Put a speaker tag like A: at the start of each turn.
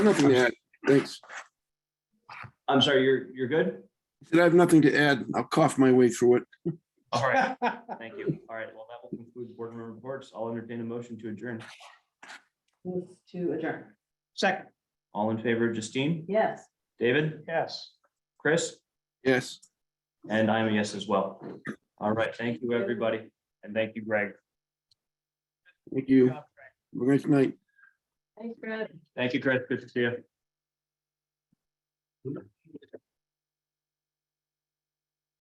A: Nothing to add. Thanks.
B: I'm sorry, you're, you're good?
A: Did I have nothing to add? I'll cough my way through it.
B: All right, thank you. All right, well, that will conclude board member reports. I'll entertain a motion to adjourn.
C: Move to adjourn.
D: Second,
B: All in favor, Justine,
C: Yes.
B: David,
D: yes.
B: Chris,
A: Yes.
B: and I'm a yes as well. All right, thank you, everybody, and thank you, Greg.
A: Thank you. Have a nice night.
C: Thanks, Brad.
B: Thank you, Chris. Good to see you.